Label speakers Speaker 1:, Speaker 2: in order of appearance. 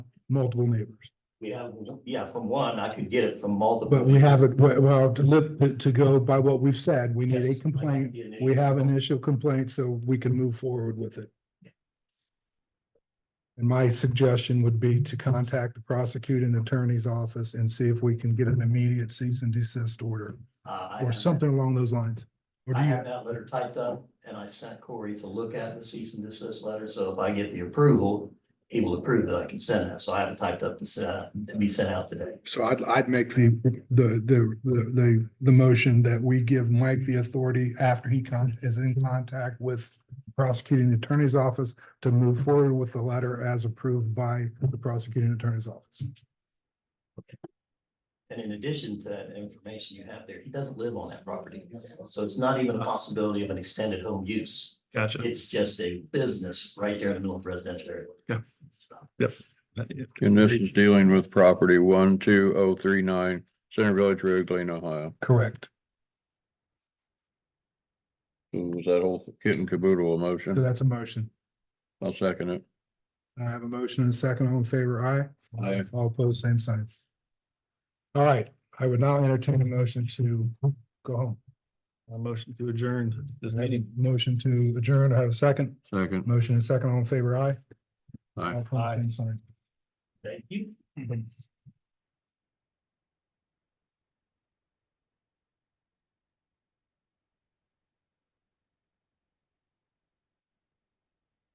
Speaker 1: multiple neighbors.
Speaker 2: Yeah, yeah, from one, I could get it from multiple.
Speaker 1: But we have, a- well, to live, to go by what we've said, we need a
Speaker 2: Yes,
Speaker 1: complaint.
Speaker 2: I like the
Speaker 1: We have an
Speaker 2: initial.
Speaker 1: initial complaint, so we can move forward with it. And my suggestion would be to contact the prosecuting attorney's office and see if we can get an immediate cease and desist order
Speaker 2: Uh, I
Speaker 1: or
Speaker 2: have that-
Speaker 1: something along those lines. Or do
Speaker 2: I
Speaker 1: you-
Speaker 2: have that letter typed up and I sent Corey to look at the cease and desist letter, so if I get the approval, he will approve that I can send that, so I have it typed up to send, to be sent out today.
Speaker 1: So I'd, I'd make the, the, the, the, the, the motion that we give Mike the authority after he con, is in contact with prosecuting attorney's office to move forward with the letter as approved by the prosecuting attorney's office.
Speaker 2: And in addition to that information you have there, he doesn't live on that property, so it's not even a possibility of an extended home use.
Speaker 3: Gotcha.
Speaker 2: It's just a business right there in the middle of residential area.
Speaker 3: Yeah.
Speaker 2: Stop.
Speaker 4: And this is dealing with property one, two, oh, three, nine, Center Village Road, Glen, Ohio.
Speaker 1: Correct.
Speaker 4: So was that whole kit and caboodle
Speaker 1: So
Speaker 4: a motion?
Speaker 1: that's a motion.
Speaker 4: I'll second it.
Speaker 1: I have a motion and a second. All in favor, aye?
Speaker 4: Aye.
Speaker 1: All opposed, same sign. All right, I would now entertain a motion to go home.
Speaker 3: A motion to adjourn this
Speaker 1: I have a
Speaker 3: meeting.
Speaker 1: Motion to adjourn. I have a second.
Speaker 4: Second.
Speaker 1: Motion and second. All in favor, aye?
Speaker 4: Aye.
Speaker 1: All opposed, same sign.
Speaker 2: Thank you.